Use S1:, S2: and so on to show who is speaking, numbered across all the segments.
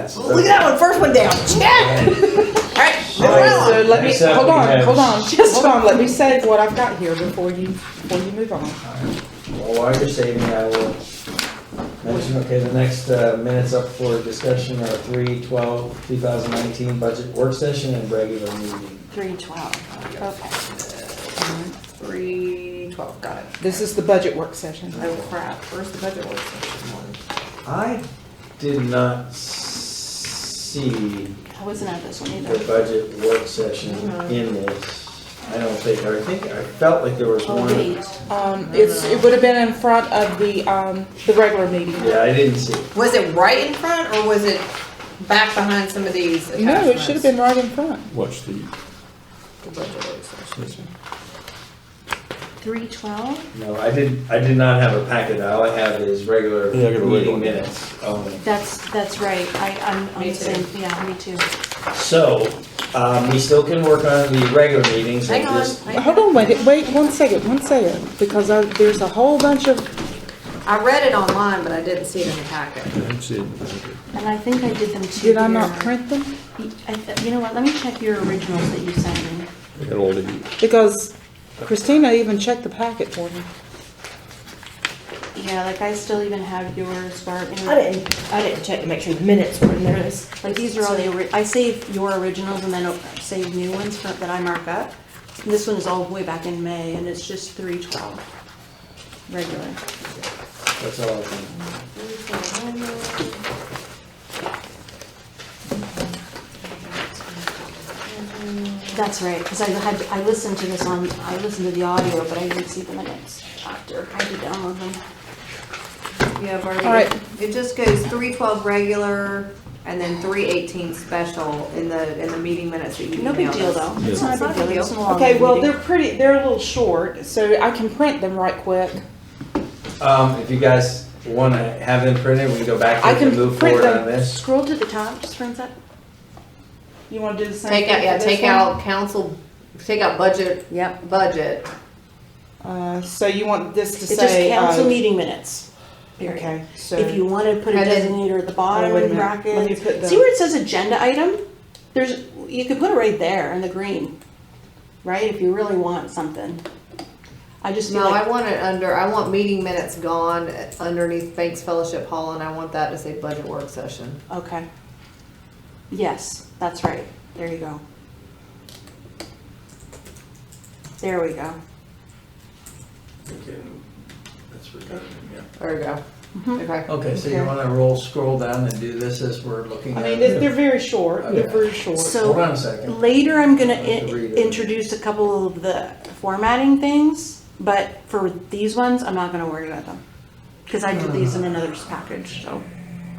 S1: That's.
S2: Look at that one, first one down, check! Alright, move
S3: Alright,
S2: right
S3: so
S2: along.
S3: let me,
S1: Next up,
S3: hold
S1: we
S3: on,
S1: have-
S3: hold on, just hold on, let me save what I've got here before you, before you move on.
S1: Well, while you're saving, I will mention, okay, the next uh, minutes up for discussion are 3 12 2019 budget work session and regular meeting.
S2: Three twelve, okay. Three twelve, got it.
S3: This is the budget work session.
S2: Oh crap, where's the budget work session?
S1: I did not s- see
S4: I wasn't at this one
S1: the
S4: either.
S1: budget work session in this. I don't think, I think, I felt like there was
S4: Oh,
S1: one.
S4: wait.
S3: Um, it's, it would have been in front of the, um, the regular meeting.
S1: Yeah, I didn't see. it.
S2: Was it right in front or was it back behind some of these
S3: No, it should have
S2: attachments?
S3: been right in front.
S5: Watch the,
S2: The budget work session.
S4: Three twelve?
S1: No, I did, I did not have a packet. All I have is regular
S5: Yeah, I got a regular
S1: meeting
S5: one.
S1: minutes only.
S4: That's, that's right. I, I'm, I'm
S2: Me
S4: the same. Yeah, me too.
S1: So, um, we still can work on the regular meetings. and
S2: Hang on,
S1: just-
S2: hang
S3: Hold on, wait, wait, one second, one second, because I, there's a whole bunch of,
S2: I read it online, but I didn't see it in the packet.
S5: that's it.
S4: And I think I did them too.
S3: did I not
S4: here.
S3: print them?
S4: I th- You know what? Let me check your originals that you sent me.
S5: I got all the,
S3: Because Christina even checked the packet for me.
S4: Yeah, like I still even have yours, Barb. and-
S6: I didn't, I didn't check to make sure the minutes were in there. It's-
S4: Like these are all the, ori- I save your originals and then o- save new ones for- that I mark up. This one is all the way back in May and it's just three twelve. Regular.
S1: That's all I can.
S4: That's right, because I had, I listened to this on, I listened to the audio, but I didn't see the minutes after. I had to download them.
S2: Yeah, Barbie.
S3: All right.
S2: It just goes three twelve regular and then three eighteen special in the, in the meeting minutes that you emailed
S4: No big deal,
S2: us.
S4: though.
S5: Yeah.
S4: It's not a big deal. It's not a long
S3: Okay, well,
S4: meeting.
S3: they're pretty, they're a little short, so I can print them right quick.
S1: Um, if you guys wanna have them printed, we can go back
S3: I
S1: and
S3: can
S1: move
S3: print
S1: forward
S3: them.
S1: on this.
S4: Scroll to the top, just print that.
S3: You wanna do the same thing
S2: Take out, yeah,
S3: for this
S2: take out council, take out budget. Yep. Budget.
S3: one? Uh, so you want this to
S4: It's just
S3: say,
S4: council
S3: uh,
S4: meeting minutes. Period.
S3: okay, so.
S4: If you want to put a
S2: I didn't-
S4: designator at the bottom
S3: Oh, wait a
S4: in
S3: minute. Let me
S4: brackets.
S3: put the-
S4: See where it says agenda item? There's, you could put it right there in the green, right? If you really want something. I just feel
S2: No, I
S4: like,
S2: want it under, I want meeting minutes gone underneath Banks Fellowship Hall and I want that to say budget work session.
S4: okay. Yes, that's right. There you go. There we go.
S2: There we go.
S4: Mhm.
S2: Okay.
S1: Okay, so you
S3: Okay.
S1: wanna roll, scroll down and do this as we're looking
S3: I
S1: at
S3: mean, they're, they're
S1: it?
S3: very short, they're
S1: Okay.
S3: very short.
S4: So.
S1: Hold on a second.
S4: Later, I'm gonna
S1: I'll have to read
S4: i-
S1: it.
S4: introduce a couple of the formatting things, but for these ones, I'm not gonna worry about them. Cause I did these in another package, so.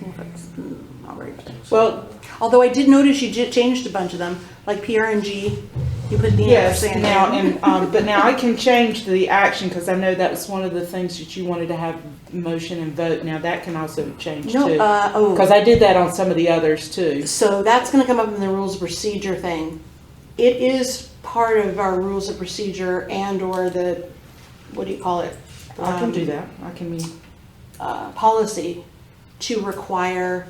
S4: if it's- mm, I'll worry about it.
S3: Well,
S4: Although I did notice you j- changed a bunch of them, like PRNG, you put the.
S3: yes,
S4: ampersand
S3: now,
S4: in.
S3: and, um, but now I can change the action, cause I know that was one of the things that you wanted to have motion and vote, now that can also change
S4: No,
S3: too.
S4: uh,
S3: Cause
S4: oh,
S3: I did that on some of the others too.
S4: so that's gonna come up in the rules of procedure thing. It is part of our rules of procedure and or the, what do you call it?
S3: I can
S4: Um,
S3: do that, I can be.
S4: uh, policy to require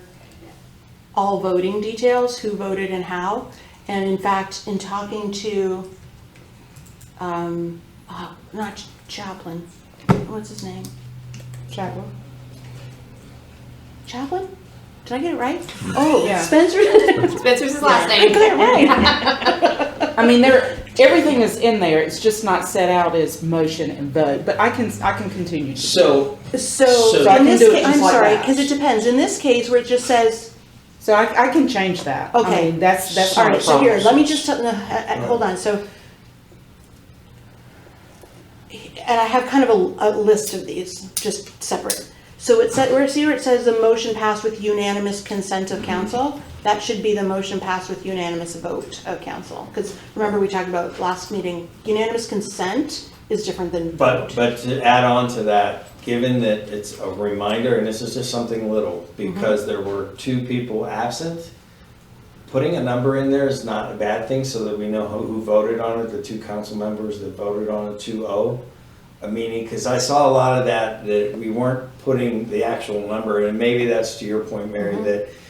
S4: all voting details, who voted and how. And in fact, in talking to, um, oh, not Chaplin, what's his name?
S3: Chadwell?
S4: Chaplin? Did I get it right? Oh,
S3: Yeah.
S4: Spencer.
S2: Spencer's his last name.
S3: I mean, there, everything is in there, it's just not set out as motion and vote, but I can, I can continue. to-
S1: So, So
S4: So
S1: I
S4: in
S3: can
S4: this
S3: do it
S4: case,
S3: just
S4: I'm
S3: like
S4: sorry,
S3: that.
S4: because it depends. In this case where it just says,
S3: So I, I can change that. I
S4: Okay.
S3: mean, That's, that's
S4: all
S3: not a
S4: right, so here,
S3: problem.
S4: let me just, tell- no, uh, uh, hold on, so. And I have kind of a, a list of these, just separate. So it said, where, see where it says the motion passed with unanimous consent of council? That should be the motion passed with unanimous vote of council, because remember we talked about last meeting, unanimous consent is different than
S1: but,
S4: vote.
S1: but to add on to that, given that it's a reminder, and this is just something little, because there were two people absent, putting a number in there is not a bad thing, so that we know who, who voted on it, the two council members that voted on it, two oh. I mean, because I saw a lot of that, that we weren't putting the actual number, and maybe that's to your point, Mary, that